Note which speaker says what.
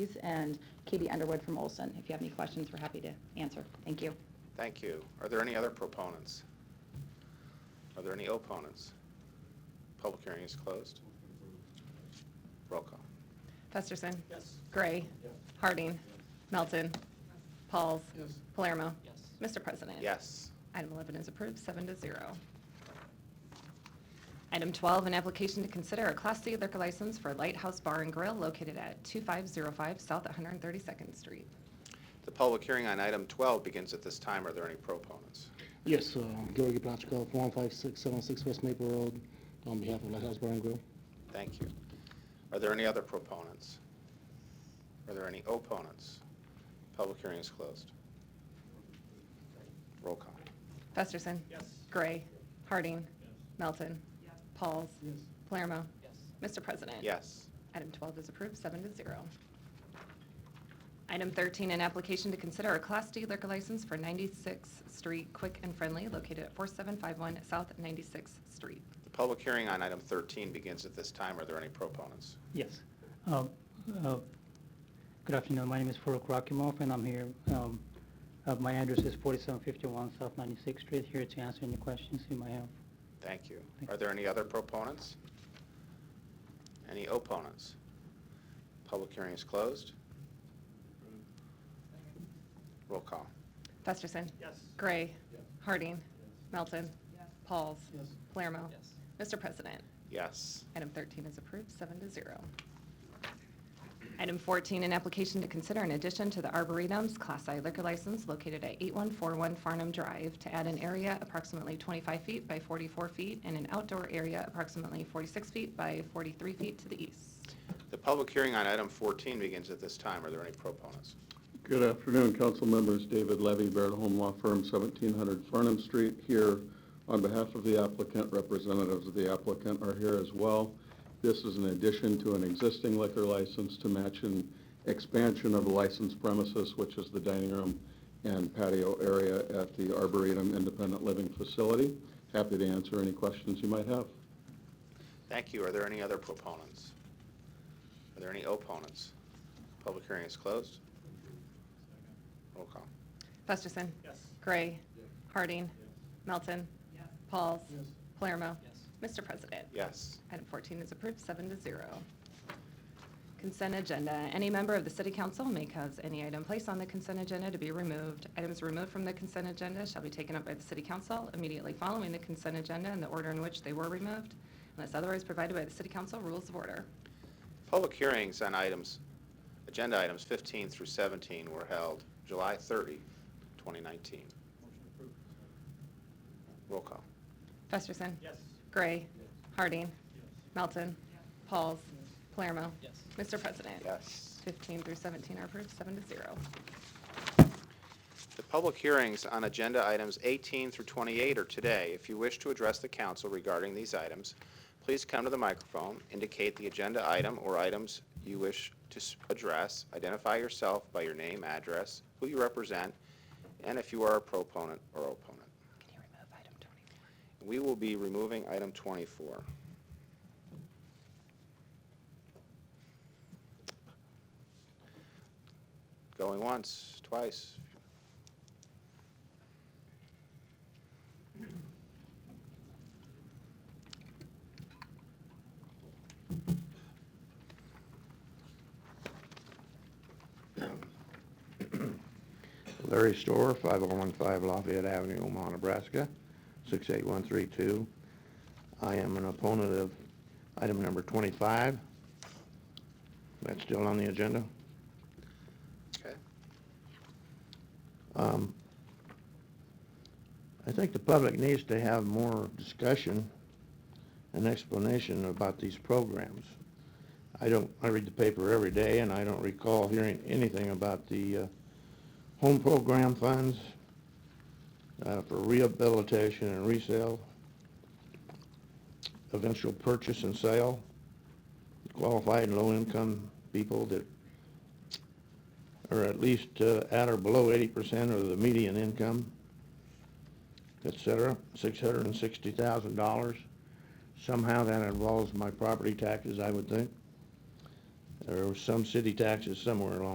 Speaker 1: Hayes and Katie Underwood from Olson. If you have any questions, we're happy to answer. Thank you.
Speaker 2: Thank you. Are there any other proponents? Are there any opponents? Public hearing is closed. Roll call.
Speaker 3: Festerson. Gray. Harding. Melton. Pauls. Palermo. Mr. President.
Speaker 2: Yes.
Speaker 3: Item 11 is approved, seven to zero. Item 12, an application to consider a Class C liquor license for Lighthouse Bar and Grill located at 2505 South 132nd Street.
Speaker 2: The public hearing on item 12 begins at this time. Are there any proponents?
Speaker 4: Yes, uh, Gary Blatchko, 15676 West Maple Road, on behalf of Lighthouse Bar and Grill.
Speaker 2: Thank you. Are there any other proponents? Are there any opponents? Public hearing is closed. Roll call.
Speaker 3: Festerson. Gray. Harding. Melton. Pauls. Palermo. Mr. President.
Speaker 2: Yes.
Speaker 3: Item 12 is approved, seven to zero. Item 13, an application to consider a Class D liquor license for 96th Street Quick and Friendly located at 4751 South 96th Street.
Speaker 2: The public hearing on item 13 begins at this time. Are there any proponents?
Speaker 5: Yes. Uh, uh, Good afternoon. My name is Farooq Rakimov, and I'm here. um, uh, My address is 4751 South 96th Street, here to answer any questions you might have.
Speaker 2: Thank you.
Speaker 5: Thank
Speaker 2: Are there any other proponents? Any opponents? Public hearing is closed. Roll call.
Speaker 3: Festerson. Gray. Harding. Melton. Pauls. Palermo. Mr. President.
Speaker 2: Yes.
Speaker 3: Item 13 is approved, seven to zero. Item 14, an application to consider in addition to the Arboretum's Class I liquor license located at 8141 Farnham Drive to add an area approximately 25 feet by 44 feet and an outdoor area approximately 46 feet by 43 feet to the east.
Speaker 2: The public hearing on item 14 begins at this time. Are there any proponents?
Speaker 6: Good afternoon, council members. David Levy, Barrett Home Law Firm, 1700 Farnham Street, here on behalf of the applicant. Representatives of the applicant are here as well. This is in addition to an existing liquor license to match an expansion of the licensed premises, which is the dining room and patio area at the Arboretum Independent Living Facility. Happy to answer any questions you might have.
Speaker 2: Thank you. Are there any other proponents? Are there any opponents? Public hearing is closed. Roll call.
Speaker 3: Festerson. Gray. Harding. Melton. Pauls. Palermo. Mr. President.
Speaker 2: Yes.
Speaker 3: Item 14 is approved, seven to zero. Consent agenda. Any member of the city council may cause any item placed on the consent agenda to be removed. Items removed from the consent agenda shall be taken up by the city council immediately following the consent agenda in the order in which they were removed, unless otherwise provided by the city council rules of order.
Speaker 2: Public hearings on items, agenda items 15 through 17 were held July 30, 2019. Roll call.
Speaker 3: Festerson. Gray. Harding. Melton. Pauls. Palermo. Mr. President.
Speaker 2: Yes.
Speaker 3: 15 through 17 are approved, seven to zero.
Speaker 2: The public hearings on agenda items 18 through 28 are today. If you wish to address the council regarding these items, please come to the microphone, indicate the agenda item or items you wish to s- address, identify yourself by your name, address, who you represent, and if you are a proponent or opponent.
Speaker 3: Can you remove item 24?
Speaker 2: We will be removing item 24. Going once, twice.
Speaker 7: Larry Store, 5015 Lafayette Avenue, Omaha, Nebraska, 68132. I am an opponent of item number 25. That's still on the agenda.
Speaker 2: Okay.
Speaker 7: Um, I think the public needs to have more discussion and explanation about these programs. I don't, I read the paper every day, and I don't recall hearing anything about the uh, home program funds uh, for rehabilitation and resale, eventual purchase and sale, qualified and low-income people that or at least uh, at or below 80% of the median income, et cetera, $660,000. Somehow that involves my property taxes, I would think. There were some city taxes somewhere along